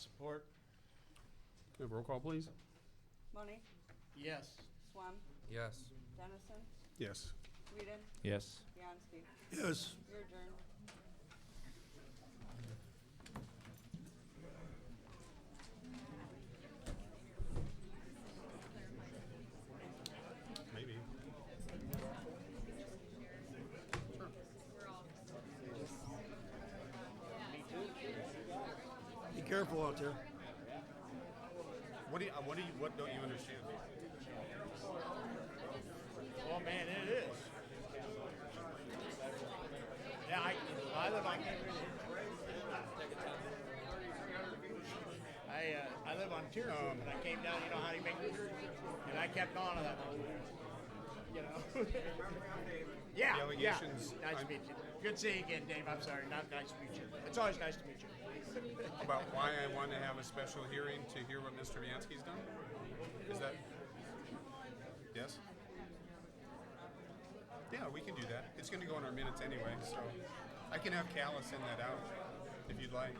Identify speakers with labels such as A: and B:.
A: support.
B: We have roll call, please.
C: Money,
A: Yes.
C: Swam,
D: Yes.
C: Dennison,
B: Yes.
C: Whedon,
D: Yes.
C: Bianski.
A: Yes.
C: Your turn.
B: Maybe.
A: Be careful out there.
E: What do you? uh, What do you? What don't you understand?
A: Oh, man, it is. Yeah, I, I live, I can't I, uh, I live on Tier Road, and I came down, you know, how do you make And I kept on to that one. You know? yeah.
E: Delegations,
A: Yeah. Nice to
E: I'm-
A: meet you. Good seeing you again, Dave. I'm sorry. Not nice to meet you. It's always nice to meet you.
E: About why I want to have a special hearing to hear what Mr. Viansky's done? Is that? Yes. Yeah, we can do that. It's going to go in our minutes anyway, so I can have Callis send that out if you'd like.